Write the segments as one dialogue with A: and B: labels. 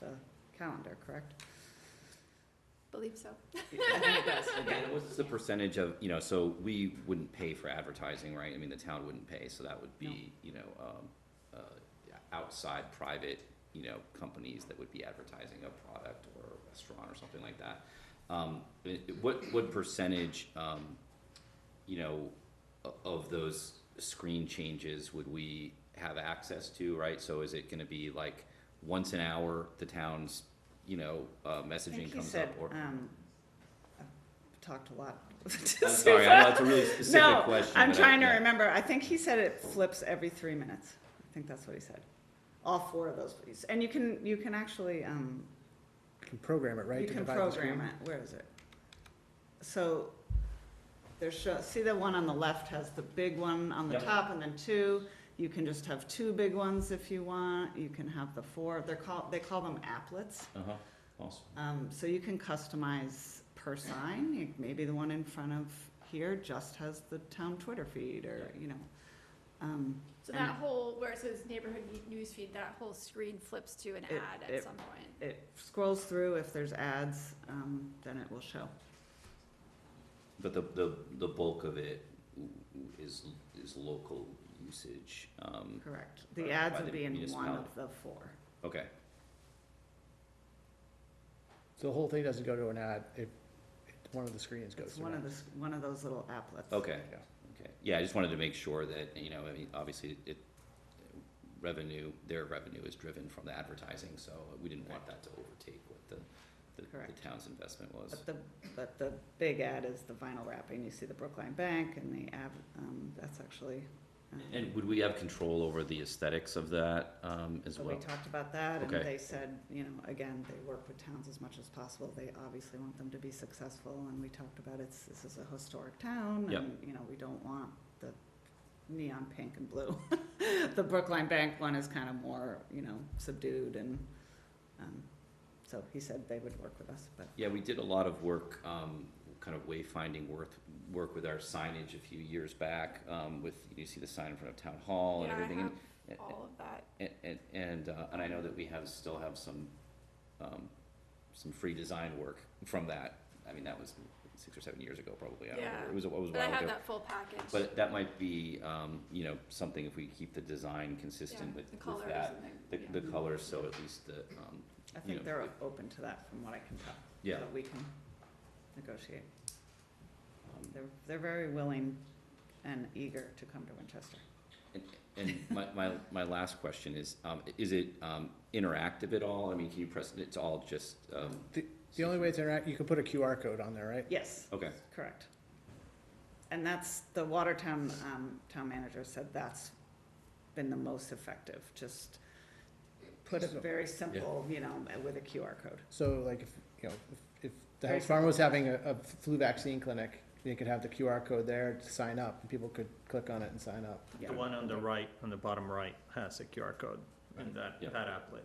A: the calendar, correct?
B: Believe so.
C: Again, what's the percentage of, you know, so we wouldn't pay for advertising, right? I mean, the town wouldn't pay, so that would be, you know, um, uh, outside private, you know, companies that would be advertising a product or a restaurant or something like that. Um, i- i- what, what percentage, um, you know, o- of those screen changes would we have access to, right? So is it gonna be like once an hour, the town's, you know, uh,
A: I think
C: messaging
A: he
C: comes
A: said,
C: up or?
A: um, I've talked a lot.
C: I'm sorry, I know it's a really specific question.
A: No, I'm
C: but I-
A: trying to
C: yeah.
A: remember, I think he said it flips every three minutes, I think that's what he said. All four of those, please, and you can, you can actually, um,
D: You can program it, right?
A: you
D: to
A: can
D: divide the
A: program
D: screen?
A: it, where is it? So, there's, show- see the one on the left has the big one on the
C: Yep.
A: top and then two, you can just have two big ones if you want, you can have the four, they're called, they call them applets.
C: Uh-huh, awesome.
A: Um, so you can customize per sign, You- maybe the one in front of here just has the town Twitter feed or, you know. Um,
B: So
A: And-
B: that whole, where it says neighborhood ne- newsfeed, that whole screen flips to an
A: It-
B: ad
A: it-
B: at some point.
A: it scrolls through, if there's ads, um, then it will show.
C: But the, the, the bulk of it w- w- is, is local usage, um,
A: Correct.
C: By-
A: The ads
C: by
A: would
C: the
A: be in one
C: municipality.
A: of the four.
C: okay,
D: So the whole thing doesn't go to an ad, it, it- one of the screens goes
A: It's
D: to
A: one
D: an
A: of
D: ad.
A: the, s- one of those little applets.
C: okay,
D: Yeah.
C: okay. Yeah, I just wanted to make sure that, you know, I mean, obviously it, revenue, their revenue is driven from the advertising, so we didn't want that to overtake what the, the, the
A: Correct.
C: town's investment was.
A: But the, but the big ad is the vinyl wrapping. You see the Brookline Bank and the ad, um, that's actually. um,
C: And would we have control over the aesthetics of that, um, as
A: So
C: well?
A: Oh, we talked about that, and
C: Okay.
A: they said, you know, again, they work with towns as much as possible, they obviously want them to be successful, and we talked about it's, this is a historic town,
C: Yep.
A: and, you know, we don't want the neon pink and blue. The Brookline Bank one is kind of more, you know, subdued, and, um, so he said they would work with us, but
C: Yeah, we did a lot of work, um, kind of wayfinding work, work with our signage a few years back, um, with, you see the sign in front of town hall and
B: Yeah, I
C: everything. and-
B: have all of that.
C: And, and, and, uh, and I know that we have, still have some, um, some free design work from that. I mean, that was six or seven years ago, probably, I don't remember,
B: Yeah.
C: it was, a- it was a
B: But I
C: while
B: have
C: ago.
B: that full package.
C: But that might be, um, you know, something if we keep the design
B: Yeah,
C: consistent with,
B: The
C: with
B: colors
C: that,
B: and the,
C: the, the colors, so at least the, um,
A: I
C: Yeah.
A: think they're open to that, from what I can tell.
C: yeah,
A: But we can negotiate,
C: um,
A: they're, they're very willing and eager to come to Winchester.
C: And, and my, my, my last question is, um, is it, um, interactive at all? I mean, can you press, it's all just, um.
D: The only way to interact, you can put a QR code on there, right?
A: Yes.
C: Okay,
A: Correct. And that's, the Watertown, um, town manager said that's been the most effective, just put it very simple, you know, with a QR code.
D: So like, if, you know, if- if the
A: Very
D: health farm was having a, a flu vaccine clinic, they could have the QR code there to sign up, and people could click on it and sign up.
A: Yeah.
E: The one on the right, uh, on the bottom right, has a QR code in that,
C: Yeah.
E: that
A: uh,
E: applet.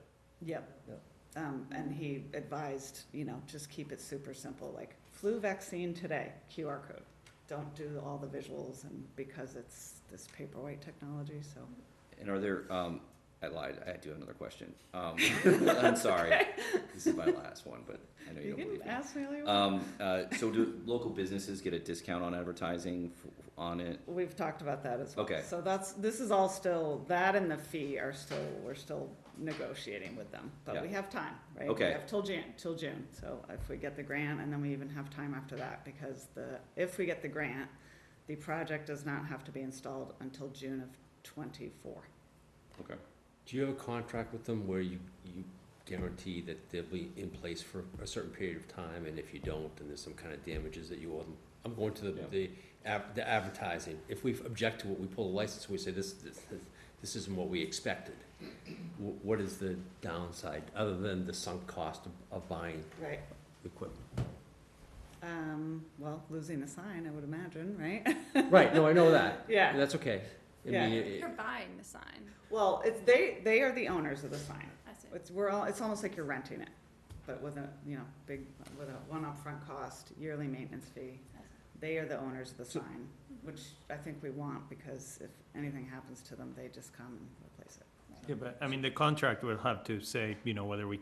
A: Yep.
D: Yep.
A: Um, and he advised, you know, just keep it super simple, like flu vaccine today, QR code. Don't do all the visuals and because it's this paperweight technology, so.
C: and are there, um, I lied, I do have another question. Um, I'm sorry, this is my last one, but I know you
A: You
C: don't
A: can
C: believe me.
A: ask me all you want.
C: Um, uh, so do local businesses get a discount on advertising f- on it?
A: We've talked about that as well.
C: Okay.
A: So that's, this is all still, that and the fee are still, we're still negotiating with them, but we
C: Yeah.
A: have time, right?
C: Okay.
A: We have till Jan, till June, so if we get the grant, and then we even have time after that, because the, if we get the grant, the project does not have to be installed until June of twenty-four.
C: Okay,
F: Do you have a contract with them where you, you guarantee that they'll be in place for a certain period of time, and if you don't, then there's some kind of damages that you owe them? I'm going to the,
C: Yeah.
F: the, ad- the advertising, if we object to it, we pull a license, we say this, this, this isn't what we expected. Wh- What is the downside, other than the sunk cost of, of buying
A: Right.
F: equipment?
A: Um, well, losing the sign, I would imagine, right?
F: Right, no, I know that,
A: Yeah.
F: and that's okay. I mean,
A: Yeah.
F: it-
B: you're buying the sign,
A: Well, it's, they, they are the owners of the sign.
B: I see.
A: It's, we're all, it's almost like you're renting it, but with a, you know, big, with a one upfront cost, yearly maintenance fee. They are the owners of the
D: So-
A: sign, which I think we want, because if anything happens to them, they just come and replace it.
E: Yeah, but, I mean, the contract will have to say, you know, whether we